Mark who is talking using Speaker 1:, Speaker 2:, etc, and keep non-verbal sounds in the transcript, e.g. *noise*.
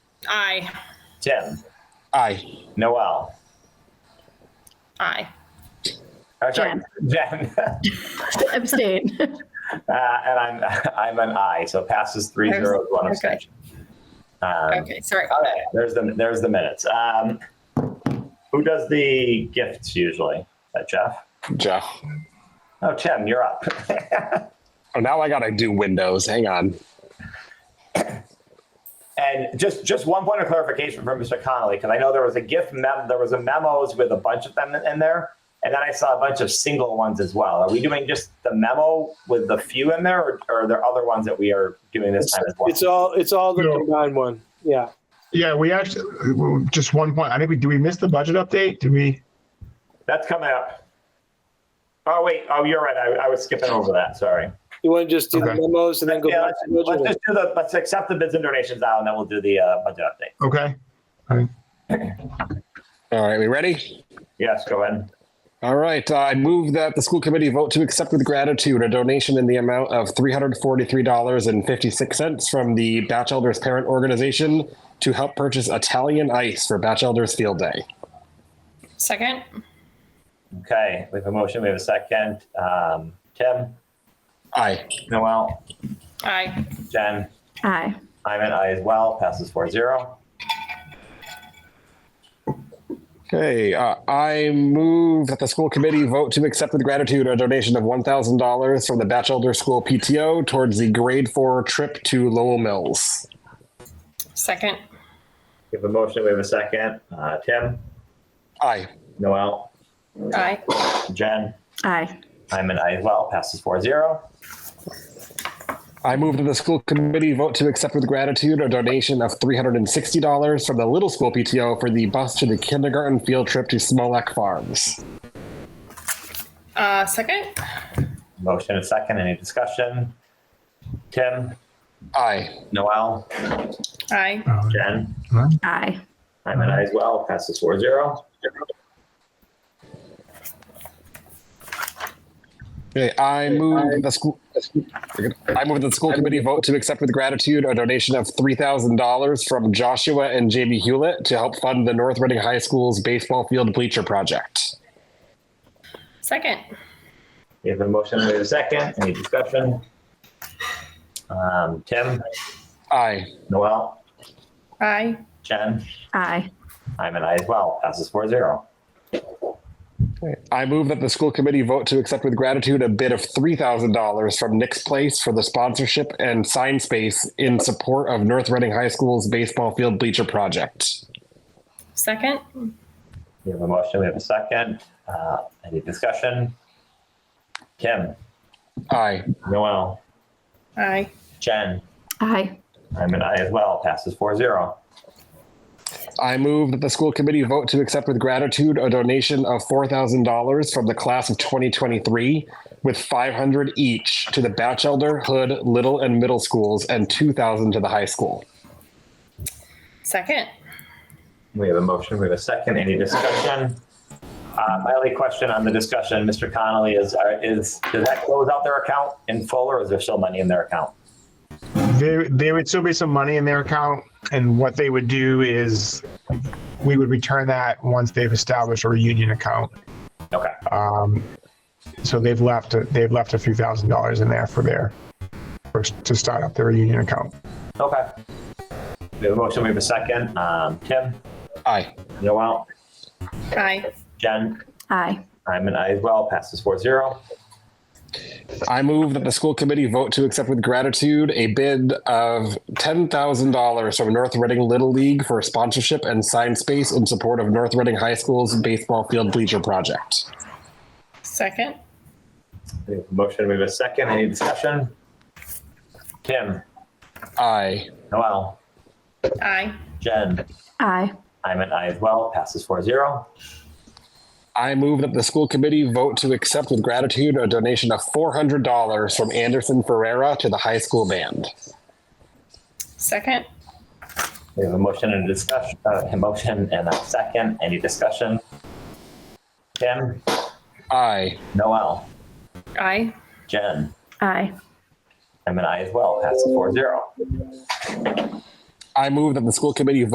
Speaker 1: Aye.
Speaker 2: Tim,
Speaker 3: Aye.
Speaker 2: Noel.
Speaker 1: Aye.
Speaker 2: uh, sorry, *laughs* Jen.
Speaker 4: Abstain.
Speaker 2: Uh, and I'm, *laughs* I'm an I, so passes three
Speaker 1: There's-
Speaker 2: zero, one
Speaker 1: okay.
Speaker 2: abstention. Um,
Speaker 1: Okay, sorry
Speaker 2: all
Speaker 1: about that.
Speaker 2: right, there's the, there's the minutes. Um, who does the gifts usually? Is that Jeff?
Speaker 3: Jeff.
Speaker 2: Oh, Tim, you're up. *laughs*
Speaker 3: Oh, now I gotta do windows. Hang on.
Speaker 2: And just, just one point of clarification from Mr. Connolly, because I know there was a gift mem, there was a memos with a bunch of them in there. And then I saw a bunch of single ones as well. Are we doing just the memo with the few in there or, or are there other ones that we are doing this time as well?
Speaker 5: It's all, it's all the
Speaker 6: No.
Speaker 5: combined one. Yeah.
Speaker 6: Yeah, we actually, just one point. I think we, do we miss the budget update? Did we?
Speaker 2: That's coming up. Oh, wait. Oh, you're right. I, I was skipping over that. Sorry.
Speaker 5: You want to just do the
Speaker 6: Okay.
Speaker 5: memos and then go
Speaker 2: Yeah,
Speaker 5: back
Speaker 2: let's,
Speaker 5: to the
Speaker 2: let's
Speaker 5: budget?
Speaker 2: just do the, let's accept the bids and donations now and then we'll do the uh, budget update.
Speaker 6: Okay.
Speaker 3: All right, we ready?
Speaker 2: Yes, go ahead.
Speaker 3: All right. Uh, I move that the school committee vote to accept with gratitude a donation in the amount of $343.56 from the Batch Elders Parent Organization to help purchase Italian ice for Batch Elders Field Day.
Speaker 1: Second?
Speaker 2: Okay. We have a motion. We have a second. Um, Tim,
Speaker 3: Aye.
Speaker 2: Noel,
Speaker 1: Aye.
Speaker 2: Jen,
Speaker 4: Aye.
Speaker 2: I'm an I as well. Passes 4 0.
Speaker 3: Okay. Uh, I move that the school committee vote to accept with gratitude a donation of $1,000 from the Batch Elder School PTO towards the grade four trip to Lowell Mills.
Speaker 1: Second?
Speaker 2: We have a motion. We have a second. Uh, Tim,
Speaker 3: Aye.
Speaker 2: Noel,
Speaker 1: Aye.
Speaker 2: Jen,
Speaker 4: Aye.
Speaker 2: I'm an I as well. Passes 4 0.
Speaker 3: I move that the school committee vote to accept with gratitude a donation of $360 from the Little School PTO for the bus to the kindergarten field trip to Smolak Farms.
Speaker 1: Uh, second?
Speaker 2: Motion and second. Any discussion? Tim,
Speaker 3: Aye.
Speaker 2: Noel,
Speaker 1: Aye.
Speaker 2: Jen,
Speaker 4: Aye.
Speaker 2: I'm an I as well, passes four zero.
Speaker 3: Okay, I move that the school. I move that the school committee vote to accept with gratitude a donation of three thousand dollars from Joshua and Jamie Hewlett to help fund the North Reading High School's baseball field bleacher project.
Speaker 1: Second?
Speaker 2: We have a motion, we have a second, any discussion? Um, Tim,
Speaker 3: Aye.
Speaker 2: Noel,
Speaker 1: Aye.
Speaker 2: Jen,
Speaker 4: Aye.
Speaker 2: I'm an I as well, passes four zero.
Speaker 3: I move that the school committee vote to accept with gratitude a bid of $3,000 from Nick's Place for the sponsorship and sign space in support of North Reading High School's baseball field bleacher project.
Speaker 1: Second?
Speaker 2: We have a motion, we have a second, uh, any discussion? Tim,
Speaker 3: Aye.
Speaker 2: Noel,
Speaker 1: Aye.
Speaker 2: Jen,
Speaker 4: Aye.
Speaker 2: I'm an I as well, passes four zero.
Speaker 3: I move that the school committee vote to accept with gratitude a donation of $4,000 from the class of 2023 with 500 each to the Batchelder, Hood, Little, and Middle schools and 2,000 to the high school.
Speaker 1: Second?
Speaker 2: We have a motion, we have a second, any discussion? Uh, my only question on the discussion, Mr. Connolly, is, are- is, does that close out their account in full or is there still money in their account?
Speaker 6: There, there would still be some money in their account, and what they would do is we would return that once they've established a reunion account.
Speaker 2: Okay.
Speaker 6: Um, so they've left, they've left a few thousand dollars in there for their, for, to start up their reunion account.
Speaker 2: Okay. We have a motion, we have a second. Um, Tim,
Speaker 3: Aye.
Speaker 2: Noel,
Speaker 1: Aye.
Speaker 2: Jen,
Speaker 4: Aye.
Speaker 2: I'm an I as well, passes four zero.
Speaker 3: I move that the school committee vote to accept with gratitude a bid of $10,000 from North Reading Little League for sponsorship and sign space in support of North Reading High School's baseball field bleacher project.
Speaker 1: Second?
Speaker 2: We have a motion, we have a second. Any discussion? Tim,
Speaker 3: Aye.
Speaker 2: Noel,
Speaker 1: Aye.
Speaker 2: Jen,
Speaker 4: Aye.
Speaker 2: I'm an I as well, passes four zero.
Speaker 3: I move that the school committee vote to accept with gratitude a donation of $400 from Anderson Ferreira to the high school band.
Speaker 1: Second?
Speaker 2: We have a motion and a discussion, uh, a motion and a second. Any discussion? Tim,
Speaker 3: Aye.
Speaker 2: Noel,
Speaker 1: Aye.
Speaker 2: Jen,
Speaker 4: Aye.
Speaker 2: I'm an I as well, passes four zero.
Speaker 3: I move that the school committee